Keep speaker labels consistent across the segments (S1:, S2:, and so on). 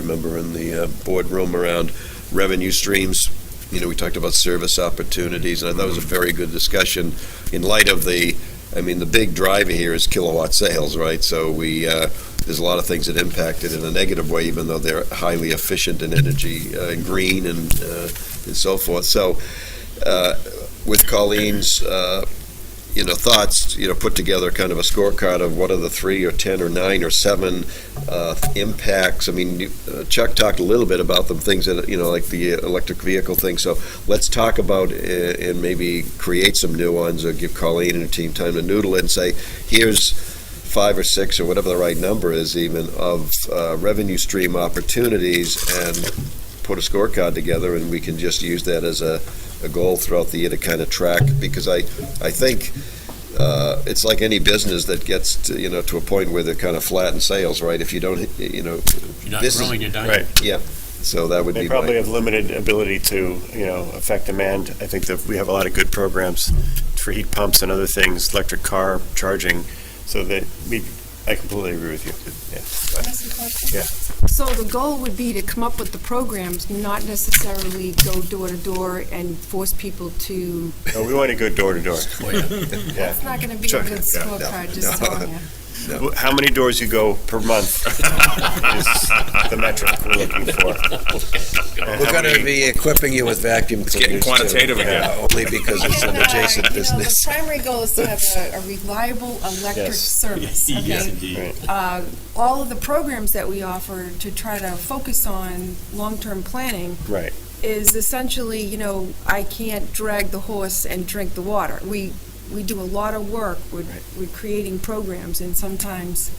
S1: member in the uh, boardroom around revenue streams. You know, we talked about service opportunities, and I thought it was a very good discussion in light of the, I mean, the big driver here is kilowatt sales, right? So we, uh, there's a lot of things that impact it in a negative way, even though they're highly efficient in energy, uh, green and, uh, and so forth. So uh, with Colleen's, uh, you know, thoughts, you know, put together kind of a scorecard of what are the three or 10 or nine or seven uh, impacts. I mean, you- uh, Chuck talked a little bit about them, things that, you know, like the electric vehicle thing. So let's talk about uh, and maybe create some new ones or give Colleen and her team time to noodle it and say, here's five or six or whatever the right number is even of uh, revenue stream opportunities and put a scorecard together and we can just use that as a, a goal throughout the year to kind of track because I, I think uh, it's like any business that gets to, you know to a point where they're kind of flat in sales, right? If you don't, you know,
S2: You're not
S1: This is-
S2: growing, you're dying.
S3: Right.
S1: so that would
S3: They
S1: be
S3: probably
S1: my,
S3: have limited ability to, you know, affect demand. I think that we have a lot of good programs for heat pumps and other things, electric car charging, so that we, I completely agree with you. Yeah. Yeah.
S4: So the goal would be to come up with the programs, not necessarily go door to door and force people to,
S3: No, we want to go door to door.
S2: Oh, yeah.
S3: Yeah.
S4: it's not going to be
S3: Sure.
S4: a good
S3: Yeah.
S4: scorecard, just
S1: no.
S4: telling you.
S3: Wh- How many doors you go per month is the metric we're looking for. And
S5: We're
S3: how
S5: going to
S3: many-
S5: be equipping you with vacuum cleaners.
S6: getting
S5: too.
S6: quantitative again.
S5: Yeah, Only because it's an
S4: And, uh, you
S5: adjacent
S4: know,
S5: business.
S4: The primary goal is to have a a reliable electric
S3: Yes.
S4: service,
S2: Yes,
S4: okay?
S2: indeed.
S4: Uh, All of the programs that we offer to try to focus on long-term planning
S3: Right.
S4: is essentially, you know, I can't drag the horse and drink the water. We, we do a lot of work with, with creating programs, and sometimes,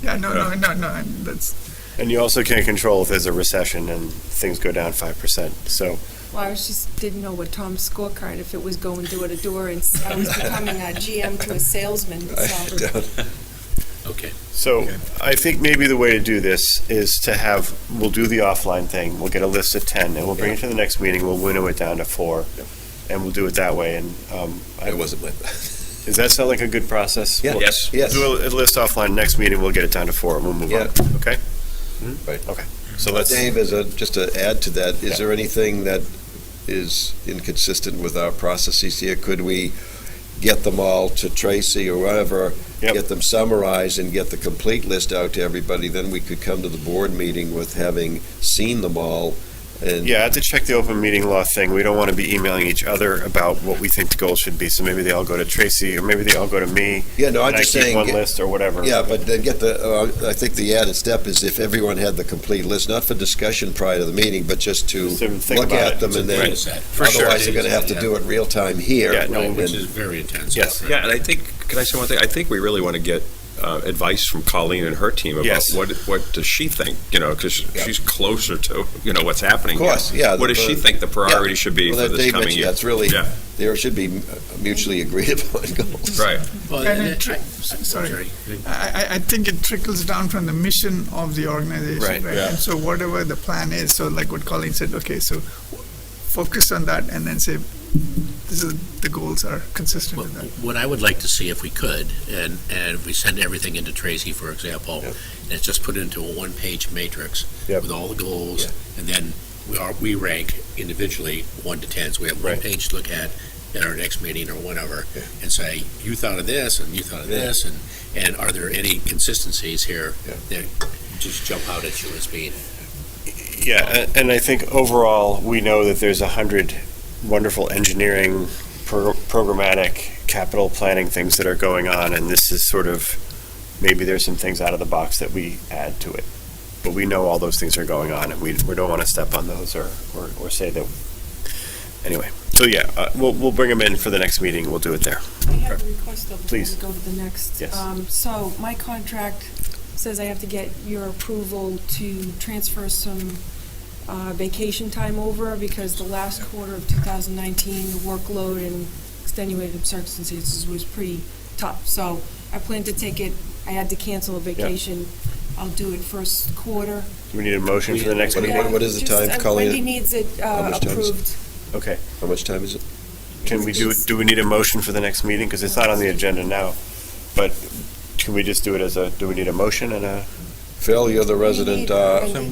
S7: Yeah, no, no, no, no, I'm- that's,
S3: And you also can't control if there's a recession and things go down 5%. So,
S4: well, I was just, didn't know what Tom's scorecard, if it was going door to door, and s- I was becoming a GM to a salesman, so.
S2: Okay.
S3: so I think maybe the way to do this is to have, we'll do the offline thing, we'll get a list of 10, and we'll bring it to the next meeting, we'll winnow it down to four, and we'll do it that way. And um, I-
S1: it wasn't my,
S3: does that sound like a good process?
S1: Yeah.
S3: We'll-
S6: Yes.
S1: Yes.
S3: Do a a list offline, next meeting, we'll get it down to four, and we'll move on, okay?
S1: Mm-hmm. Right.
S3: Okay, so let's.
S1: Dave, as a, just to add to that,
S3: Yeah.
S1: is there anything that is inconsistent with our processes here? Could we get them all to Tracy or whatever?
S3: Yep.
S1: Get them summarized and get the complete list out to everybody, then we could come to the board meeting with having seen them all and.
S3: Yeah, I have to check the open meeting law thing. We don't want to be emailing each other about what we think the goal should be. So maybe they all go to Tracy, or maybe they all go to me.
S1: Yeah, no, I'm
S3: and I
S1: just
S3: keep
S1: saying.
S3: one list or whatever.
S1: Yeah, but then get the, uh, I think the added step is if everyone had the complete list, not for discussion prior to the meeting, but just to
S3: Just to think
S1: look at
S3: about it.
S1: them and then,
S2: Right. For sure.
S1: otherwise they're gonna have to do it real time here.
S3: Yeah, no,
S2: Right, which
S1: and-
S2: is very intense.
S3: Yes.
S6: Yeah, and I think, can I say one thing? I think we really want to get uh, advice from Colleen and her team about
S3: Yes.
S6: what, what does she think, you know, because
S1: Yeah.
S6: she's closer to, you know, what's happening.
S1: Of course, yeah.
S6: What does she
S1: The-
S6: think the priority should be
S1: Well,
S6: for
S1: that
S6: this
S1: Dave
S6: coming
S1: mentioned,
S6: year?
S1: That's really,
S6: Yeah.
S1: there should be mutually agreed upon goals.
S6: Right.
S2: Well,
S7: And
S2: and
S7: it
S2: I-
S7: tri-
S2: I'm
S7: sorry.
S2: sorry.
S7: I, I- I think it trickles down from the mission of the organization.
S3: Right,
S6: yeah.
S7: And so whatever the plan is, so like what Colleen said, okay, so focus on that and then say, this is, the goals are consistent with that.
S2: What I would like to see if we could, and, and if we send everything into Tracy, for example,
S1: Yep.
S2: and it's just put into a one-page matrix
S3: Yep.
S2: with all the goals, and then we are, we rank individually one to ten, so we have one
S3: Right.
S2: page to look at at our next meeting or whatever, and say, you thought of this, and you thought of this, and, and are there any consistencies here
S1: Yeah.
S2: that just jump out at you as being?
S3: Yeah, a- and I think overall, we know that there's a hundred wonderful engineering, pro- programmatic, capital planning things that are going on, and this is sort of, maybe there's some things out of the box that we add to it. But we know all those things are going on, and we, we don't want to step on those or, or, or say that. Anyway, so yeah, uh, we'll, we'll bring them in for the next meeting, we'll do it there.
S4: I have a request though, before we
S3: Please.
S4: go to the next.
S3: Yes.
S4: Um, So my contract says I have to get your approval to transfer some uh, vacation time over because the last quarter of 2019, the workload and extenuating circumstances was pretty tough. So I plan to take it, I had to cancel a vacation. I'll do it first quarter.
S3: Do we need a motion for the next
S1: What-
S3: meeting?
S1: what- what is the
S4: Just,
S1: time,
S4: uh,
S1: Colleen?
S4: Wendy needs it
S1: How
S4: uh,
S1: much time is it?
S4: approved.
S3: Okay.
S1: How much time is it?
S3: Can we do, do we need a motion for the next meeting? Because it's not on the agenda now, but can we just do it as a, do we need a motion and a?
S1: Phil, you're the
S4: We
S1: resident,
S4: need
S1: uh,
S4: Wendy.